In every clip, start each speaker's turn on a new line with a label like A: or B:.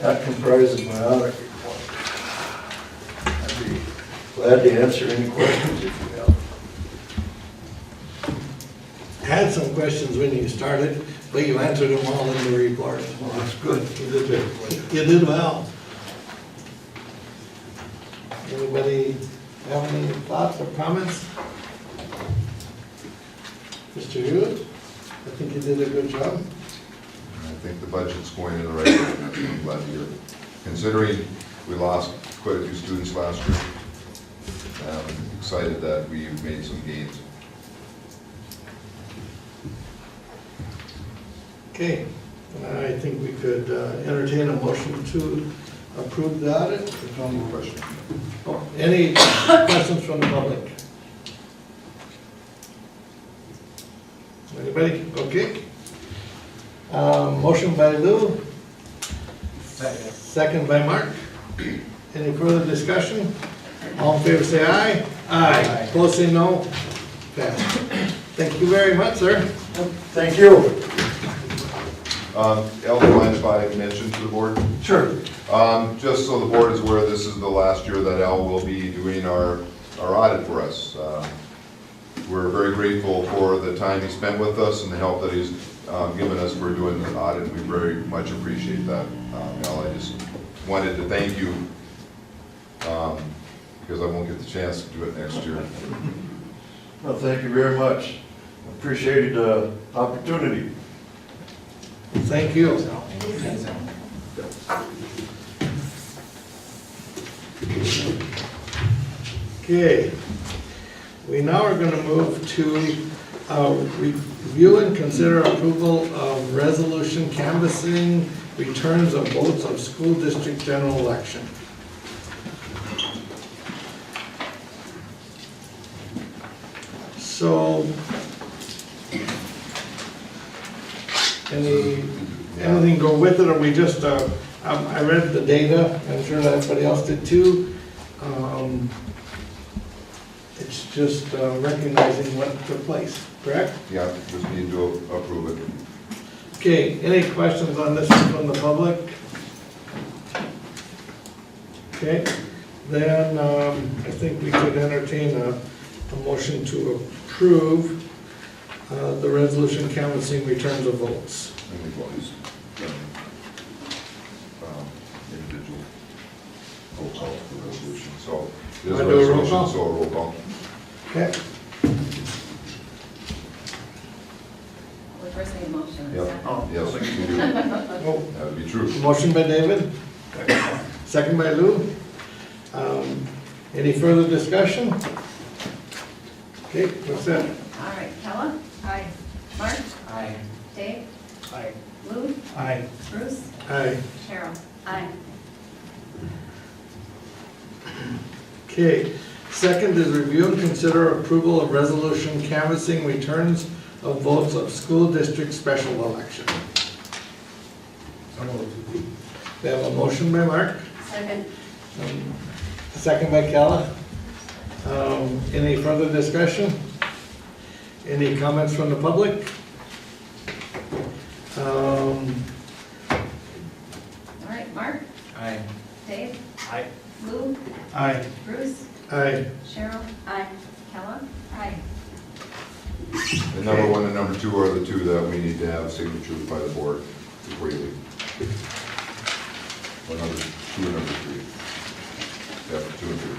A: That comprises my audit report. I'd be glad to answer any questions if you have.
B: Had some questions when you started, but you answered them all in the report.
A: Well, that's good.
B: You did very well. You did well. Anybody have any thoughts or comments? Mr. Hewitt, I think you did a good job.
C: I think the budget's going in the right direction, I'm glad to hear. it. Considering we lost quite a few students last year, um, excited that we've made some gains.
B: Okay, I think we could uh, entertain a motion to approve the audit.
C: Any questions?
B: Oh, Any questions from the public? Anybody? Okay. Um, Motion by Lou. Second. by Mark. Any further discussion? All in favor, say aye. Aye. Opposed, say no. Passed. Thank you very much, sir.
A: Thank you.
C: Um, Elder, mind if I mention to the board?
A: Sure.
C: Um, Just so the board is aware, this is the last year that Al will be doing our, our audit for us. Um, We're very grateful for the time he spent with us and the help that he's um, given us for doing the audit. We very much appreciate that. Um, Al, I just wanted to thank you, um, because I won't get the chance to do it next year.
A: Well, thank you very much. Appreciated the opportunity.
B: Thank you. Okay, we now are gonna move to uh, review and consider approval of resolution canvassing returns of votes of school district general election. So, any, anything go with it, or we just, uh, um, I read the data, I'm sure that everybody else did too. Um, It's just uh, recognizing what took place, correct?
C: Yeah, just need to approve it.
B: Okay, any questions on this one from the public? Okay, then um, I think we could entertain a, a motion to approve uh, the resolution canvassing returns of votes.
C: And we've always done, um, individual roll call for resolution, so. there's
B: Wanna do a roll
C: resolution,
B: call?
C: So a roll call.
B: Okay,
D: We first need a motion.
C: Yep.
D: second.
C: Oh, Yes, we do. That
B: well,
C: would be true.
B: Motion by David, second by Lou. Um, Any further discussion? Okay, what's that?
D: All right, Kella? Aye. Mark?
E: Aye.
D: Dave?
E: Aye.
D: Lou?
E: Aye.
D: Bruce?
B: Aye.
D: Cheryl? Aye.
B: Okay, second is review and consider approval of resolution canvassing returns of votes of school district special election. We have a motion by Mark,
D: Second.
B: um, second by Kella. Um, Any further discussion? Any comments from the public? Um,
D: All right, Mark?
E: Aye.
D: Dave?
E: Aye.
D: Lou?
E: Aye.
D: Bruce?
B: Aye.
D: Cheryl? Aye. Kella? Aye.
C: And number one and number two are the two that we need to have signatures by the board before you leave. Or number two and number three. Yeah, two and three.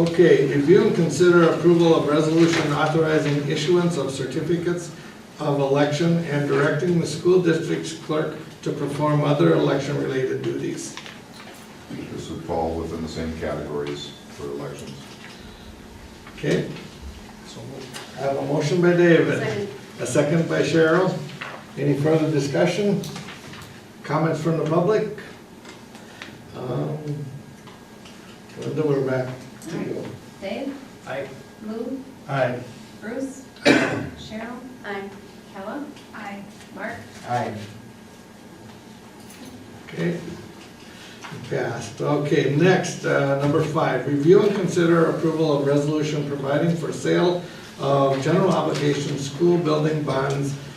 B: Okay, review and consider approval of resolution authorizing issuance of certificates of election and directing the school district's clerk to perform other election-related duties.
C: This would fall within the same categories for elections.
B: Okay? I have a motion by David,
D: Second.
B: a second by Cheryl. Any further discussion? Comments from the public? Um, Linda, we're back to you.
D: Dave?
E: Aye.
D: Lou?
E: Aye.
D: Bruce? Cheryl? Aye. Kella? Aye. Mark?
E: Aye.
B: Okay. Passed. Okay, next, uh, number five, review and consider approval of resolution providing for sale of general obligation school building bonds uh,